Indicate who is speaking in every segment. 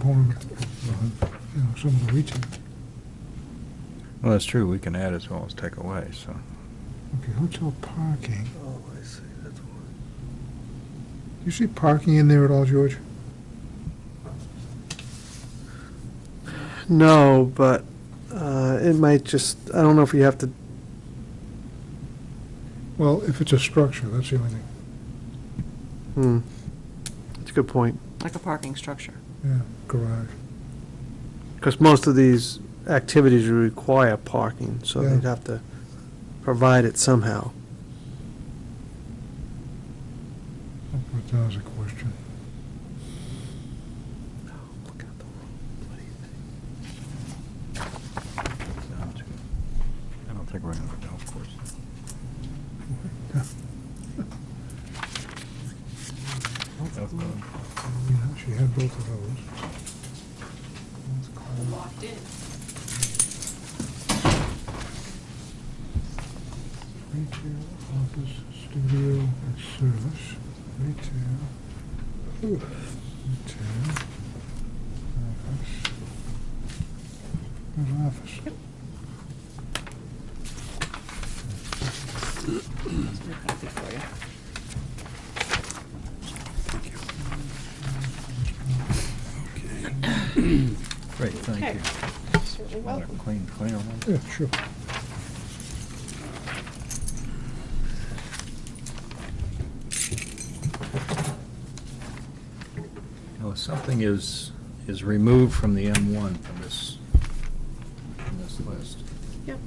Speaker 1: component, uh, you know, some of the leaching.
Speaker 2: Well, that's true, we can add as well as take away, so.
Speaker 1: Okay, hotel parking.
Speaker 3: Oh, I see, that's what.
Speaker 1: Do you see parking in there at all, George?
Speaker 3: No, but uh, it might just, I don't know if you have to,
Speaker 1: Well, if it's a structure, that's the only thing,
Speaker 3: hmm, that's a good point.
Speaker 4: like a parking structure.
Speaker 1: yeah, garage.
Speaker 3: Because most of these activities require parking, so
Speaker 1: Yeah.
Speaker 3: they'd have to provide it somehow.
Speaker 1: I'll put that as a question.
Speaker 2: I don't think we're gonna have a golf course.
Speaker 1: You know, she had both of those.
Speaker 5: locked in.
Speaker 1: Retail, office, studio, and service, retail. Retail. Office. There's office.
Speaker 4: There's no copy for you.
Speaker 2: Great, thank
Speaker 5: Okay.
Speaker 2: you.
Speaker 5: Certainly
Speaker 2: Another
Speaker 5: welcome.
Speaker 2: clean, clean one.
Speaker 1: Yeah, sure.
Speaker 2: Now, if something is, is removed from the M1 from this, from this list.
Speaker 5: Yep.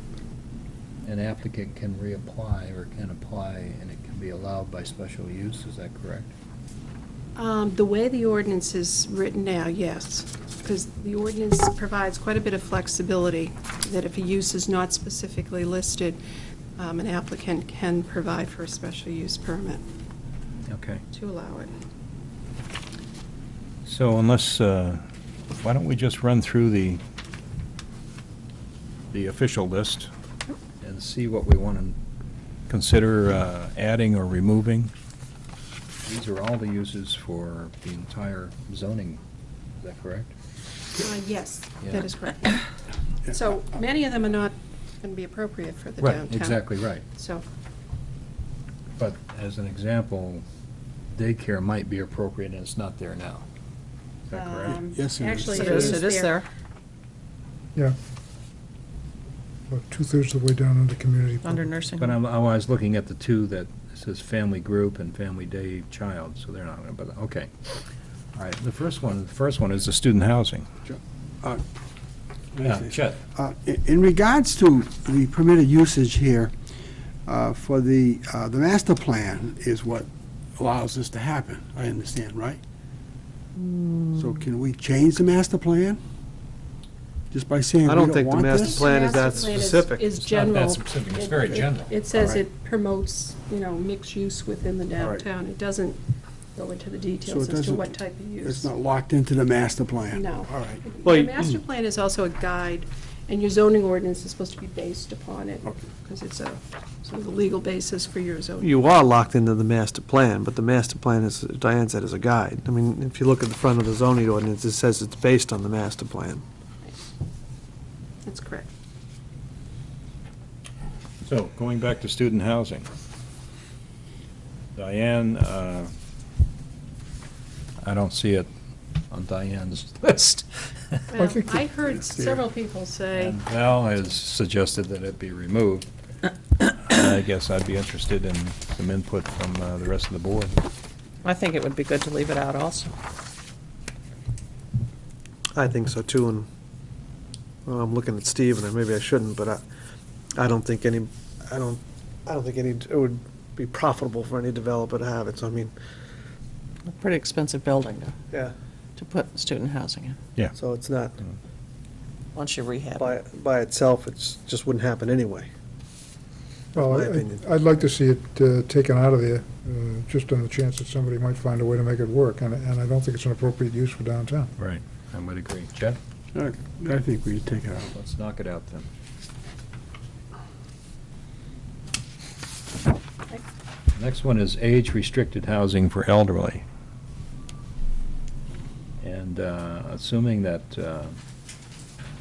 Speaker 2: An applicant can reapply or can apply and it can be allowed by special use, is that correct?
Speaker 5: Um, The way the ordinance is written now, yes, because the ordinance provides quite a bit of flexibility, that if a use is not specifically listed, um, an applicant can provide for a special use permit
Speaker 2: Okay,
Speaker 5: to allow it.
Speaker 2: so unless, uh, why don't we just run through the, the official list and see what we want to consider uh, adding or removing? These are all the uses for the entire zoning, is that correct?
Speaker 5: Uh, Yes,
Speaker 2: Yeah.
Speaker 5: that is correct. So many of them are not going to be appropriate for the downtown.
Speaker 2: Right, exactly right.
Speaker 5: So,
Speaker 2: But as an example, daycare might be appropriate, and it's not there now. Is that correct?
Speaker 5: um,
Speaker 6: Yes, it is.
Speaker 5: actually,
Speaker 4: It is, it is there.
Speaker 1: Yeah. About two-thirds of the way down under community.
Speaker 4: Under
Speaker 1: public.
Speaker 4: nursing.
Speaker 2: But
Speaker 4: home.
Speaker 2: I'm, oh, I was looking at the two that says family group and family day child, so they're not, but, okay. All right, the first one, the first one is the student housing.
Speaker 6: Uh,
Speaker 2: Yeah, Chet,
Speaker 6: Uh, i- In regards to the permitted usage here, uh, for the, uh, the master plan is what allows this to happen, I understand, right? So can we change the master plan? Just by saying
Speaker 3: I
Speaker 6: we
Speaker 3: don't
Speaker 6: don't
Speaker 3: think the
Speaker 6: want
Speaker 3: master
Speaker 6: this?
Speaker 3: plan- is that
Speaker 5: Master plan is-
Speaker 3: specific.
Speaker 5: Is
Speaker 2: It's not that
Speaker 5: general.
Speaker 2: specific. It's
Speaker 5: It-
Speaker 2: very
Speaker 5: it-
Speaker 2: general.
Speaker 5: It says
Speaker 6: Alright.
Speaker 5: it promotes, you know, mixed use within the
Speaker 6: Alright.
Speaker 5: downtown. It doesn't go into the details
Speaker 6: it
Speaker 5: as to
Speaker 6: doesn't-
Speaker 5: what type of use.
Speaker 6: It's not locked into the master plan?
Speaker 5: No.
Speaker 6: All right.
Speaker 3: Well,
Speaker 5: The
Speaker 3: you-
Speaker 5: master plan is also a guide, and your zoning ordinance is supposed to be based upon it,
Speaker 6: Okay.
Speaker 5: because it's a, sort of a legal basis for your zoning.
Speaker 3: You are locked into the master plan, but the master plan is, Diane said, is a guide. I mean, if you look at the front of the zoning ordinance, it says it's based on the master plan.
Speaker 5: That's correct.
Speaker 2: so, going back to student housing. Diane, uh, I don't see it on Diane's list.
Speaker 1: I
Speaker 5: Well,
Speaker 1: think
Speaker 5: I
Speaker 1: that-
Speaker 5: heard
Speaker 6: it's there.
Speaker 5: several people say,
Speaker 2: And Val has suggested that it be removed. I guess I'd be interested in some input from uh, the rest of the board.
Speaker 4: I think it would be good to leave it out also.
Speaker 3: I think so too, and, well, I'm looking at Steve, and maybe I shouldn't, but I, I don't think any, I don't, I don't think any, it would be profitable for any developer to have it, so I mean,
Speaker 4: A pretty expensive building to,
Speaker 3: yeah,
Speaker 4: to put student housing in,
Speaker 3: so it's not,
Speaker 4: once you rehab
Speaker 3: by,
Speaker 4: it.
Speaker 3: by itself, it's, just wouldn't happen anyway.
Speaker 1: Well,
Speaker 3: my opinion.
Speaker 1: I- I'd like to see it uh, taken out of there, uh, just on the chance that somebody might find a way to make it work, and and I don't think it's an appropriate use for downtown.
Speaker 2: Right. I would agree. Chet?
Speaker 6: All right, I think we take it out.
Speaker 2: Let's knock it out then. Next one is age-restricted housing for elderly. And uh, assuming that uh,